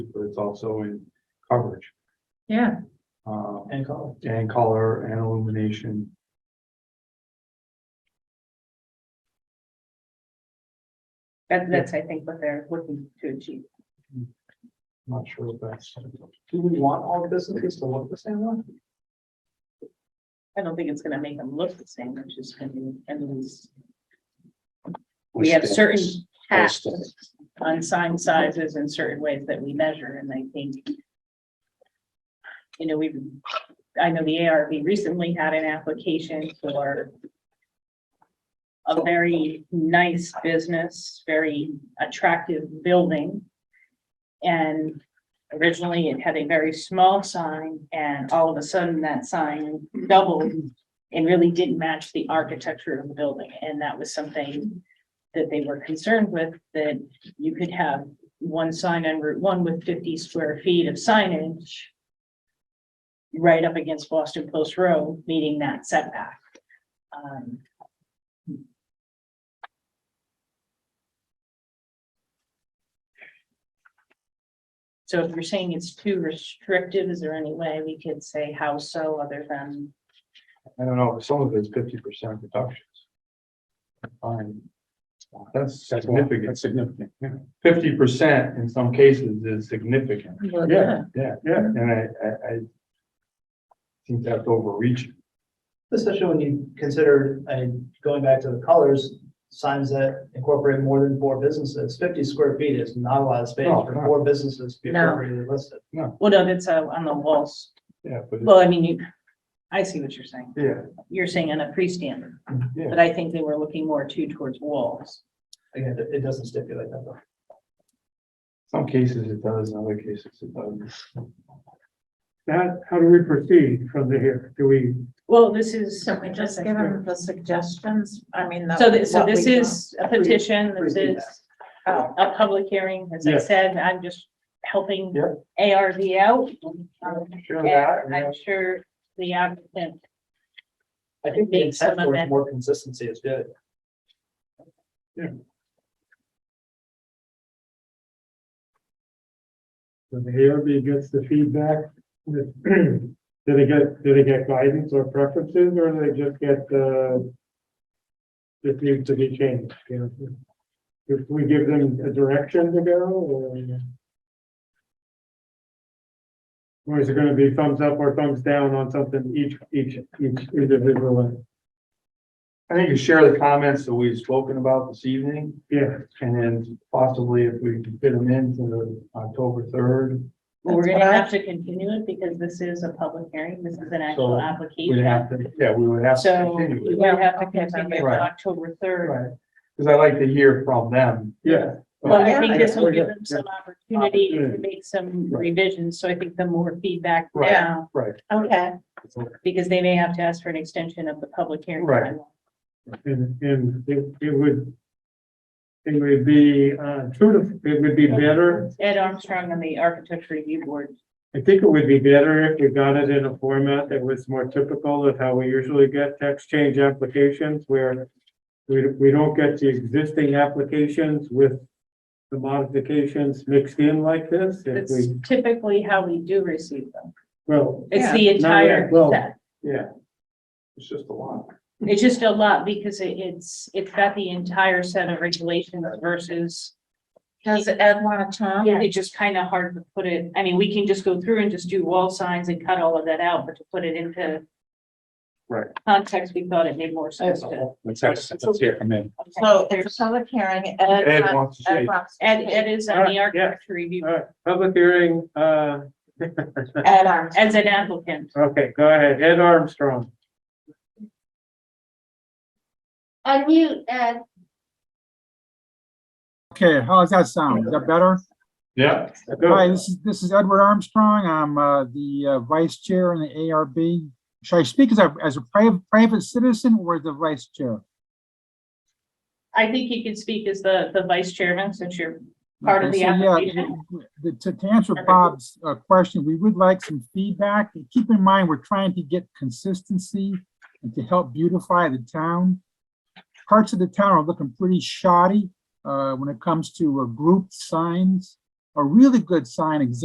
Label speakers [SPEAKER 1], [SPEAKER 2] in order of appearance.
[SPEAKER 1] but it's also in coverage,
[SPEAKER 2] Yeah,
[SPEAKER 1] um,
[SPEAKER 3] And call
[SPEAKER 1] and color and illumination.
[SPEAKER 2] that, that's, I think, what they're looking to achieve.
[SPEAKER 1] I'm Not sure if that's.
[SPEAKER 3] Do we want all businesses to look the same way?
[SPEAKER 2] I don't think it's gonna make them look the same, which is gonna be, and these, we have certain caps on sign sizes and certain ways that we measure, and I think you know, we've, I know the ARB recently had an application for a very nice business, very attractive building. And originally it had a very small sign and all of a sudden that sign doubled and really didn't match the architecture of the building. And that was something that they were concerned with, that you could have one sign on Route One with fifty square feet of signage right up against Boston Post Road, meeting that setback. Um, So if you're saying it's too restrictive, is there any way we could say how so other than,
[SPEAKER 1] I don't know, some of it's fifty percent reductions. Fine. That's significant. That's significant. Fifty percent in some cases is significant.
[SPEAKER 2] Well,
[SPEAKER 1] Yeah, yeah, yeah, and I, I, I think that's overreaching.
[SPEAKER 3] Especially when you consider, and going back to the colors, signs that incorporate more than four businesses, fifty square feet is not a lot of space
[SPEAKER 1] No,
[SPEAKER 3] for
[SPEAKER 1] no.
[SPEAKER 3] four businesses to be
[SPEAKER 2] No.
[SPEAKER 3] appropriately listed.
[SPEAKER 2] well, no, that's uh, on the walls.
[SPEAKER 1] Yeah, but, it-
[SPEAKER 2] Well, I mean, you, I see what you're saying.
[SPEAKER 1] yeah,
[SPEAKER 2] You're saying on a freestanding,
[SPEAKER 1] yeah.
[SPEAKER 2] but I think they were looking more too towards walls.
[SPEAKER 3] Again, it- it doesn't stipulate that though.
[SPEAKER 1] Some cases it does, in other cases it doesn't.
[SPEAKER 4] That, how do we proceed from there? Do we,
[SPEAKER 2] Well, this is.
[SPEAKER 5] So we just give them the suggestions, I mean. the-
[SPEAKER 2] So this, so
[SPEAKER 5] what
[SPEAKER 2] this
[SPEAKER 5] we-
[SPEAKER 2] is a petition, this
[SPEAKER 3] Pre-
[SPEAKER 2] is
[SPEAKER 5] Oh,
[SPEAKER 2] a public hearing, as I
[SPEAKER 4] Yes.
[SPEAKER 2] said, I'm just helping
[SPEAKER 1] Yeah.
[SPEAKER 2] ARV out.
[SPEAKER 1] Sure that,
[SPEAKER 2] And
[SPEAKER 1] yeah.
[SPEAKER 2] I'm sure the applicant
[SPEAKER 3] I think the
[SPEAKER 2] Make
[SPEAKER 3] intent
[SPEAKER 2] some
[SPEAKER 3] for
[SPEAKER 2] amendment.
[SPEAKER 3] more consistency is good.
[SPEAKER 4] when the ARB gets the feedback? with- Do they get, do they get guidance or preferences, or do they just get, uh, it needs to be changed, you know? If we give them a direction to go, or? Or is it gonna be thumbs up or thumbs down on something each, each, each individual?
[SPEAKER 1] I think you share the comments that we've spoken about this evening,
[SPEAKER 4] Yeah,
[SPEAKER 1] and then possibly if we can fit them into the October third,
[SPEAKER 2] Well, we're
[SPEAKER 5] That's
[SPEAKER 2] gonna
[SPEAKER 5] what I-
[SPEAKER 2] have to continue it because this is a public hearing. This is an
[SPEAKER 1] So,
[SPEAKER 2] actual
[SPEAKER 1] we'd
[SPEAKER 2] application.
[SPEAKER 1] have to, yeah, we would have to
[SPEAKER 2] So
[SPEAKER 1] continue
[SPEAKER 2] we
[SPEAKER 1] it.
[SPEAKER 2] will have to
[SPEAKER 5] Okay,
[SPEAKER 2] continue it
[SPEAKER 1] right.
[SPEAKER 2] on October third.
[SPEAKER 1] Right, because I like to hear from them.
[SPEAKER 4] yeah,
[SPEAKER 2] But I
[SPEAKER 5] Yeah,
[SPEAKER 2] think
[SPEAKER 4] I
[SPEAKER 2] this
[SPEAKER 4] guess
[SPEAKER 2] will
[SPEAKER 4] we're
[SPEAKER 2] give
[SPEAKER 4] good,
[SPEAKER 2] them some opportunity to
[SPEAKER 4] Opportunity.
[SPEAKER 2] make some
[SPEAKER 1] Right.
[SPEAKER 2] revisions. So I think the more feedback
[SPEAKER 1] Right.
[SPEAKER 2] now,
[SPEAKER 1] Right,
[SPEAKER 5] Okay,
[SPEAKER 2] because they may have to ask for an extension of the public hearing.
[SPEAKER 1] Right.
[SPEAKER 2] timeline.
[SPEAKER 4] And, and it, it would, it would be, uh, true to, it would be better,
[SPEAKER 2] Ed Armstrong on the Architecture Review Board.
[SPEAKER 4] I think it would be better if we got it in a format that was more typical of how we usually get tax change applications where we, we don't get the existing applications with the modifications mixed in like this. If
[SPEAKER 2] That's
[SPEAKER 4] we,
[SPEAKER 2] typically how we do receive them.
[SPEAKER 4] well,
[SPEAKER 2] It's
[SPEAKER 5] Yeah.
[SPEAKER 2] the entire
[SPEAKER 4] well-
[SPEAKER 2] set.
[SPEAKER 1] yeah. It's just a lot.
[SPEAKER 2] It's just a lot because it- it's, it's got the entire set of regulations versus
[SPEAKER 5] does Ed want to talk?
[SPEAKER 2] It's just kind of hard to put it, I mean, we can just go through and just do wall signs and cut all of that out, but to put it into
[SPEAKER 1] Right.
[SPEAKER 2] context, we thought it made more sense to.
[SPEAKER 1] Let's, let's hear from him.
[SPEAKER 5] So there's a public hearing.
[SPEAKER 1] Ed
[SPEAKER 2] uh,
[SPEAKER 1] wants to
[SPEAKER 5] Ed
[SPEAKER 1] say,
[SPEAKER 5] wants to
[SPEAKER 2] Ed,
[SPEAKER 5] speak.
[SPEAKER 2] Ed is on the architecture E review,
[SPEAKER 4] all right, public hearing, uh,
[SPEAKER 5] Ed Armstrong.
[SPEAKER 2] uh, as an applicant.
[SPEAKER 4] okay, go ahead, Ed Armstrong.
[SPEAKER 6] Unmute, Ed.
[SPEAKER 7] Okay, how's that sound? Is that better?
[SPEAKER 1] yeah,
[SPEAKER 7] Hi,
[SPEAKER 4] Go.
[SPEAKER 7] this is, this is Edward Armstrong. I'm uh, the uh, vice chair in the ARB. Should I speak as a, as a private, private citizen or the vice chair?
[SPEAKER 2] I think you could speak as the, the vice chairman since you're part of
[SPEAKER 7] Okay,
[SPEAKER 2] the
[SPEAKER 7] so, yeah,
[SPEAKER 2] application.
[SPEAKER 7] the- To, to answer Bob's uh, question, we would like some feedback. Keep in mind, we're trying to get consistency and to help beautify the town. Parts of the town are looking pretty shoddy uh, when it comes to uh, group signs. a really good sign example